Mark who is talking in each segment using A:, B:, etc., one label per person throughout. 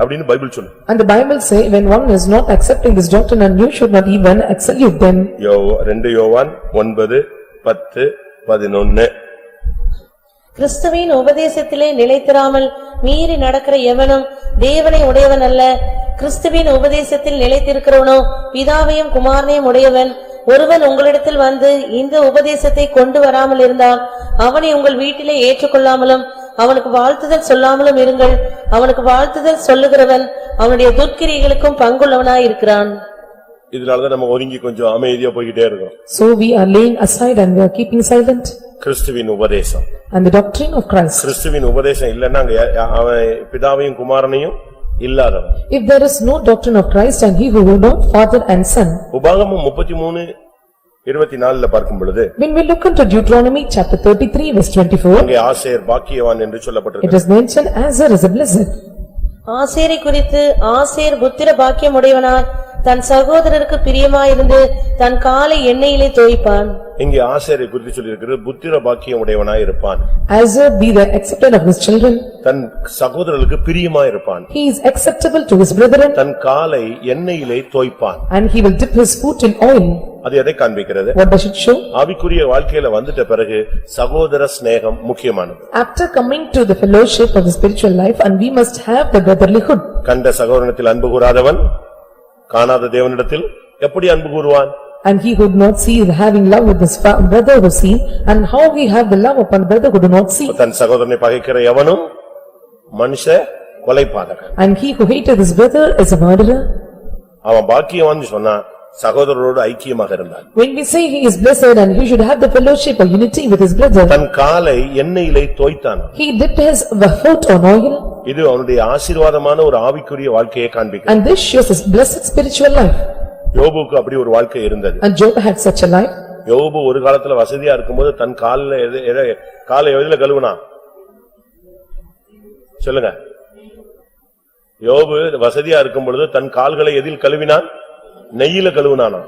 A: அப்படின்னு பைபிள் சொல்லு
B: And the Bible say, when one is not accepting this doctrine and you should not even salute them.
A: யோ ரெண்டு யோவான் ஒன்பது பத்து பதினொன்னு
C: கிறிஸ்துவின் உபதேசத்திலே நிலைத்திராமல் மீறி நடக்கிற எவனும் தேவனை உடையவன் அல்ல கிறிஸ்துவின் உபதேசத்தில் நிலைத்திருக்கிறவனோ பிதாவையும் குமாரனையும் உடையவன் ஒருவன் உங்களிடத்தில் வந்து இந்த உபதேசத்தை கொண்டு வராமல் இருந்தால் அவனை உங்கள் வீட்டிலே ஏற்றுக்கொள்ளாமலும் அவனுக்கு வாழ்த்துதல் சொல்லாமலும் இருங்கள் அவனுக்கு வாழ்த்துதல் சொல்லுகிறவன் அவனுடைய துர்க்கிரியைகளுக்கும் பங்குள்ளவனாயிருக்கிறான்
A: இதனாலதான் நம்ம ஒதுங்கி கொஞ்சம் அமைதியா போய்கிட்டே இருக்கோம்
B: So we are laying aside and we are keeping silent.
A: கிறிஸ்துவின் உபதேசம்
B: And the doctrine of Christ.
A: கிறிஸ்துவின் உபதேசம் இல்லன்னா அங்க யா- யா- அவன் பிதாவையும் குமாரனையும் இல்லாதவன்
B: If there is no doctrine of Christ and he who will know father and son.
A: உபாகமம் முப்பத்தி மூணு இருபத்தி நாலுல பார்க்கும் பொழுது
B: When we look into Deuteronomy chapter thirty-three verse twenty-four,
A: அங்கே ஆசேர் பாக்கியவான் என்று
B: it
A: சொல்லப்பட்டிருக்கு
B: is mentioned Azar is a blessed.
C: ஆசேரை குறித்து ஆசேர் புத்திர பாக்கியம் உடையவனாய் தன் சகோதரருக்கு பிரியமாயிருந்து தன் காலை எண்ணெயிலே தோய்ப்பான்
A: இங்கே ஆசேரை குறித்து சொல்லியிருக்கிறது புத்திர பாக்கியம் உடையவனாய் இருப்பான்
B: Azar be the accepted of his children,
A: தன் சகோதரர்களுக்கு பிரியமாய் இருப்பான்
B: he is acceptable to his brethren
A: தன் காலை எண்ணெயிலே தோய்ப்பான்
B: and he will dip his foot in oil.
A: அது எதை காண்பிக்கிறது
B: What does it show?
A: ஆவிக்குரிய வாழ்க்கையில வந்துட்ட பிறகு சகோதர சிநேகம் முக்கியமானது
B: After coming to the fellowship of the spiritual life and we must have the brotherlyhood.
A: கண்ட சகோதரனத்தில் அன்பு கூறாதவன் காணாத தேவனிடத்தில் எப்படி அன்பு கூறுவான்
B: And he could not see the having love with his fa- brother who see and how we have the love upon brother who do not see.
A: தன் சகோதரனை பகைக்கிற எவனும் மனுஷ கொலைபாதகன்
B: And he who hated his brother is a murderer.
A: அவன் பாக்கியவான்னு சொன்னா சகோதரரோடு ஐக்கியமாக இருந்தான்
B: When we say he is blessed and he should have the fellowship or unity with his brother,
A: தன் காலை எண்ணெயிலே தோய்த்தான்
B: he dipped his foot on oil
A: இது அவனுடைய ஆசீர்வாதமான ஒரு ஆவிக்குரிய வாழ்க்கையை காண்பிக்கும்
B: and this shows his blessed spiritual life.
A: யோபுக்கு அப்படி ஒரு வாழ்க்கை இருந்தது
B: And Job had such a life.
A: யோபு ஒரு காலத்துல வசதியா இருக்கும்போது தன் காலில் எது எதை காலை எதுல கழுவுனா சொல்லுங்க யோபு வசதியா இருக்கும் பொழுது தன் கால்களை எதில் கழுவினான் நெய்யில கழுவினானா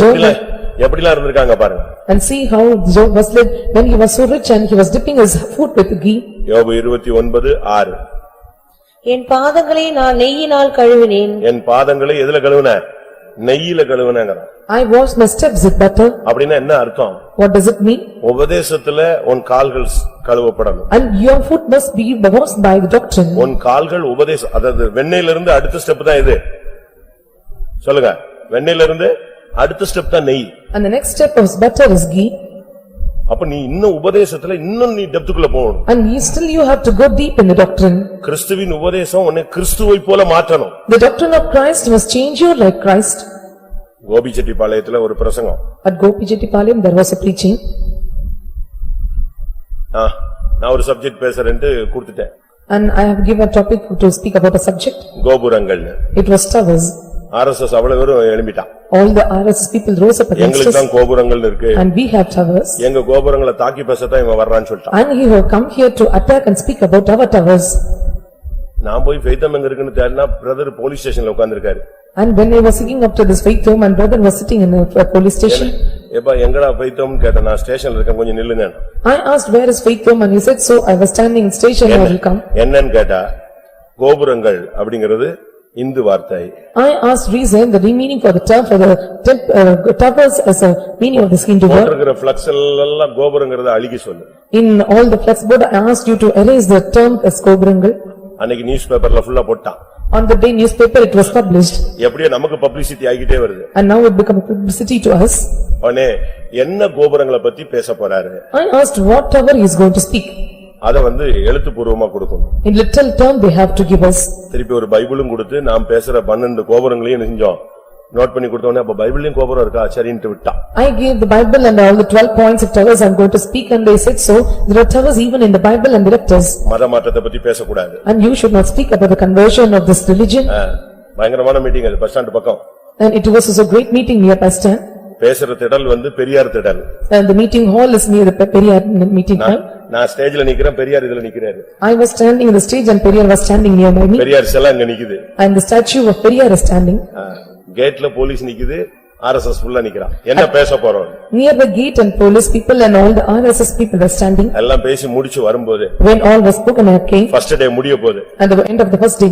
B: Job
A: இல்ல,
B: had-
A: எப்படிலாம் இருந்திருக்காங்க பாருங்க
B: and see how Job was led when he was so rich and he was dipping his foot with ghee.
A: யோபு இருபத்தி ஒன்பது ஆறு
C: என் பாதங்களை நான் நெய்யினால் கழுவினேன்
A: என் பாதங்களை எதுல கழுவுன நெய்யில கழுவுனங்கிறான்
B: I washed my steps with butter.
A: அப்படின்னா என்ன அர்த்தம்
B: What does it mean?
A: உபதேசத்துல உன் கால்கள் ஸ்- கழுவப்படணும்
B: And your foot must be washed by the doctrine.
A: உன் கால்கள் உபதேச அதாவது வெண்ணெயில இருந்து அடுத்த ஸ்டெப் தான் இது சொல்லுங்க வெண்ணெயில இருந்து அடுத்த ஸ்டெப் தான் நெய்
B: And the next step of butter is ghee
A: அப்ப நீ இன்னும் உபதேசத்துல இன்னும் நீ டெப்துக்குள்ள போகணும்
B: and you still you have to go deep in the doctrine.
A: கிறிஸ்துவின் உபதேசம் உன்னை கிறிஸ்துவை போல மாற்றணும்
B: The doctrine of Christ must change you like Christ.
A: கோபிச்செட்டிபாளையத்துல ஒரு பிரசங்கம்
B: At Gopijettipalayam there was a preaching
A: ஆ, நான் ஒரு சப்ஜெக்ட் பேசுறேன்ட்டு கொடுத்துட்டேன்
B: and I have given a topic to speak about a subject.
A: கோபுரங்கள்னு
B: It was towers.
A: ஆர்எஸ்எஸ் அவ்வளவு பேரும் எழுப்பிட்டான்
B: All the RSS people rose up against
A: எங்களுக்கு
B: us
A: தான் கோபுரங்கள் இருக்கு
B: and we have towers.
A: எங்க கோபுரங்களை தாக்கி பேசத்தான் இவன் வர்றான்னு சொல்லிட்டான்
B: And he will come here to attack and speak about our towers.
A: நான் போய் ஃபெய்தம் எங்க இருக்குன்னு தேடினா பிரதர் போலீஸ் ஸ்டேஷன்ல உட்கார்ந்திருக்காரு
B: And when I was sitting up to this faith home and brother was sitting in a a police station,
A: எப்ப எங்கடா ஃபெய்தம்னு கேட்டேன் நான் ஸ்டேஷன்ல இருக்கேன் கொஞ்சம் நில்லுங்க
B: I asked where is faith home and he said so I was standing in station I will come.
A: என்னன்னு கேட்டா கோபுரங்கள் அப்படிங்கிறது இந்து வார்த்தை
B: I asked reason, the meaning for the term for the temp- uh, towers as a meaning of this Hindu word.
A: போட்டிருக்கிற flex எல்லாம் கோபுரங்கிறத அழுகி சொல்லு
B: In all the flex board, I asked you to erase the term as Kobrangal.
A: அன்னைக்கு news பேப்பர்ல ஃபுல்லா போட்டான்
B: On the day newspaper, it was published
A: எப்படியோ நமக்கு பப்ளிசிட்டி ஆகிட்டே வருது
B: and now it become publicity to us.
A: உடனே என்ன கோபுரங்களை பத்தி பேச போறாரு
B: I asked what tower he is going to speak.
A: அத வந்து எழுத்துப்பூர்வமா கொடுக்கணும்
B: In little term, they have to give us.
A: திருப்பி ஒரு பைபிளும் கொடுத்து நாம் பேசுற பன்னெண்டு கோபுரங்களையும் என்ன செஞ்சோம் நோட் பண்ணி கொடுத்தோன்னே அப்ப பைபிள்லயும் கோபுரம் இருக்கா சரின்ட்டு விட்டான்
B: I gave the Bible and all the twelve points of towers I am going to speak and they said so. There are towers even in the Bible and directors.
A: மத மாற்றத்தை பத்தி பேசக்கூடாது
B: And you should not speak about the conversion of this religion.
A: ஆ, பயங்கரமான meeting அது bus stand பக்கம்
B: And it was also a great meeting near Pastor.
A: பேசுற திடல் வந்து பெரியார் திடல்
B: And the meeting hall is near the Pe- Periyar meeting hall.
A: நான் ஸ்டேஜ்ல நிக்கிறேன் பெரியார் இதுல நிக்கிறாரு
B: I was standing in the stage and Periyar was standing near by me.
A: Periyar செல்லாம் இங்க நிக்குது
B: And the statue of Periyar is standing.
A: ஆ, கேட்ல police நிக்குது ஆர்எஸ்எஸ் ஃபுல்லா நிக்கிறான் என்ன பேச போறோம்
B: Near the gate and police people and all the RSS people were standing.
A: எல்லாம் பேசி முடிச்சு வரும்போது
B: When all was spoken and came,
A: first day முடிய போகுது
B: at the end of the first day,